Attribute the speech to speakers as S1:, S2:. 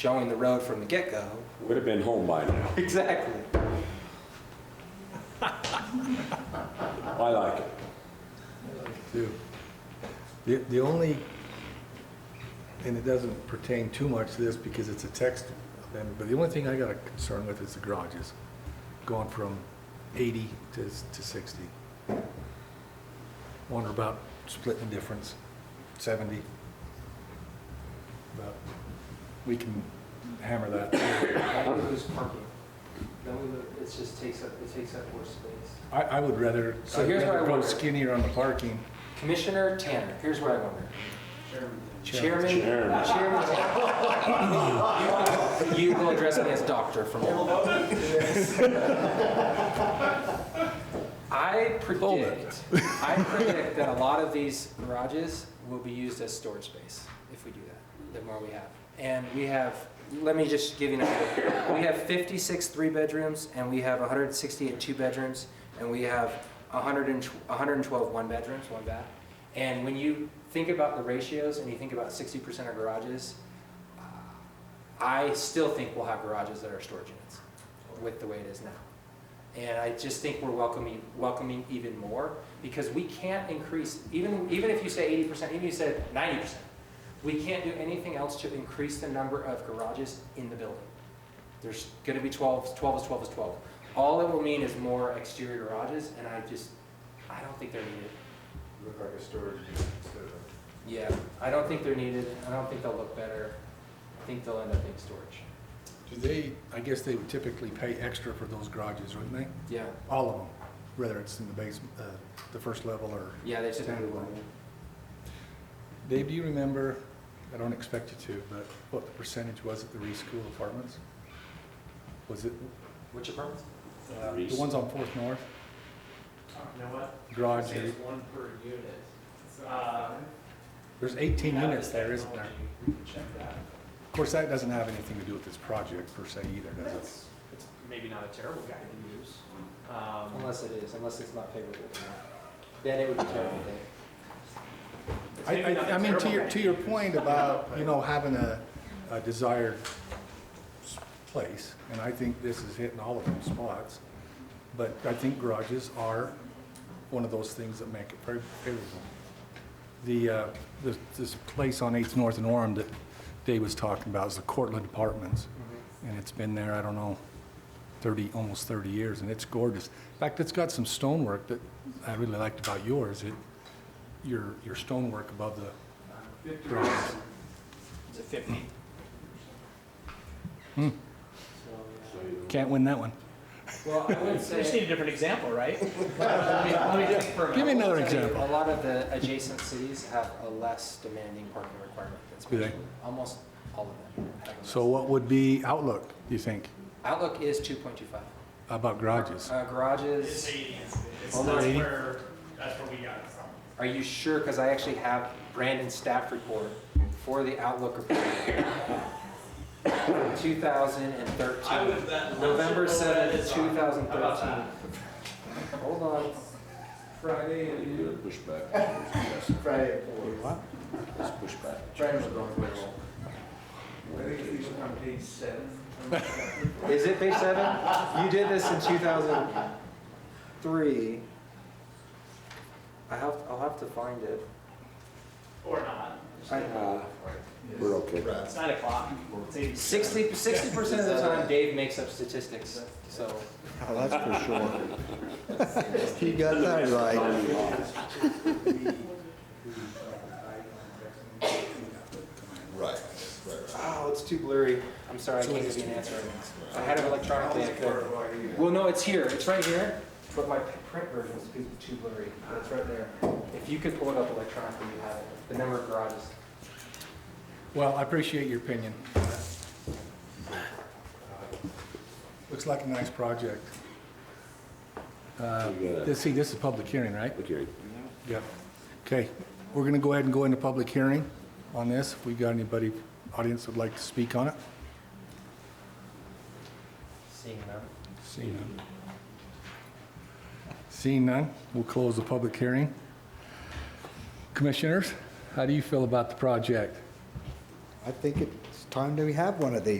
S1: showing the road from the get-go.
S2: Would have been home by now.
S1: Exactly.
S2: I like it.
S3: too. The, the only, and it doesn't pertain too much to this because it's a text amendment, but the only thing I got a concern with is the garages, going from 80 to, s- to 60. Wonder about splitting the difference, 70. But we can hammer that.
S4: We lose parking. Then we, lo- it just takes up, it takes up more space.
S3: I, I would rather,
S1: So
S3: I'd
S1: here's what I
S3: rather go
S1: wonder.
S3: skinnier on the parking.
S1: Commissioner Tanner, here's what I wonder. Chairman, Chairman
S2: Chairman.
S1: Tanner. You will address me as doctor from now on. I predict, I predict that a lot of these garages will be used as storage space if we do that, the more we have. And we have, let me just give you an idea. We have 56 three-bedrooms, and we have 168 two-bedrooms, and we have 112 one-bedrooms, one bath. And when you think about the ratios and you think about 60% are garages, uh, I still think we'll have garages that are storage units with the way it is now. And I just think we're welcoming, welcoming even more, because we can't increase, even, even if you say eighty percent, even if you said ninety percent, we can't do anything else to increase the number of garages in the building. There's gonna be 12. 12 is twelve is twelve. All it will mean is more exterior garages, and I just, I don't think they're needed.
S5: Look like a storage unit instead of.
S1: Yeah, I don't think they're needed, I don't think they'll look better, I think they'll end up being storage.
S3: Do they, I guess they would typically pay extra for those garages, wouldn't they?
S1: Yeah,
S3: All of them, whether it's in the basement, uh, the first level or.
S1: yeah, they just.
S3: Standalone. Dave, do you remember, I don't expect you to, but what the percentage was at the Reschool Apartments? Was it,
S1: Which apartments?
S3: uh, the ones on Fourth North,
S4: You know what?
S3: garage,
S4: one per unit.
S3: there's 18 units there, isn't there?
S4: We can check that.
S3: Of course, that doesn't have anything to do with this project per se either, does it?
S4: That's, it's maybe not a terrible guide to use. Um,
S1: Unless it is, unless it's not favorable to them. Then it would be terrible.
S4: it's
S3: I,
S4: maybe not
S3: I,
S4: a
S3: I mean, to
S4: terrible
S3: your,
S4: guide
S3: to your point about, you know, having a, a desired s- place, and I think this is hitting all of those spots, but I think garages are one of those things that make it very favorable. The, uh, this, this place on Eighth North and Orem that Dave was talking about is the Cortland Apartments, and it's been there, I don't know, thirty, almost thirty years, and it's gorgeous. In fact, it's got some stonework that I really liked about yours, it, your, your stonework above the drawings.
S4: It's a fifty.
S1: So,
S3: Can't win that one.
S5: Mm-hmm.
S1: Well, I would
S4: We just need
S1: say,
S4: a different example, right? Let me- let me think for a
S3: Give me
S4: minute.
S3: another
S1: a
S3: example.
S1: lot of the adjacent cities have a less demanding parking requirement than
S3: Do they?
S1: Springfield. Almost all of them have a less.
S3: So what would be outlook, do you think,
S1: Outlook is two point two five.
S3: about garages?
S1: Uh,
S6: It's
S1: garages,
S6: eighty, it's, it's
S3: Oh,
S6: that's
S3: they're 80?
S6: where, that's where we got it from.
S1: are you sure? Because I actually have Brandon's staff report for the Outlook report. Two thousand and
S6: I
S1: thirteen,
S6: would bet.
S1: November seventh, two thousand
S6: How about that?
S1: thirteen. Hold on.
S5: Friday
S2: You
S5: and.
S2: do push back.
S5: Friday at four.
S2: Let's push back.
S5: Friday was going to I think it was on page seven.
S1: Is it page seven? You did this in two thousand three. I have, I'll have to find it.
S6: Or not,
S1: I
S2: Uh, We're okay.
S6: it's nine o'clock, it's eighty.
S1: Sixty, sixty percent of the time Dave makes up statistics, so.
S7: Oh, that's for sure. He got that right. Right.
S1: Oh, it's too blurry. I'm sorry, I can't give you an answer right now. If I had it electronically, I could. Well, no, it's here, it's right here, but my p- print version is too- too blurry, but it's right there. If you could pull it up electronically, you have it, the number of garages.
S3: Well, I appreciate your opinion. Looks like a nice project.
S2: You
S3: Uh,
S2: got it.
S3: Let's see, this is public hearing, right?
S2: Okay.
S3: Yep. Okay, we're going to go ahead and go into public hearing on this. If we got anybody, audience would like to speak on it?
S1: Seeing them.
S3: Seeing none. Seeing none, we'll close the public hearing. Commissioners, how do you feel about the project?
S7: I think it's time do we have one of these?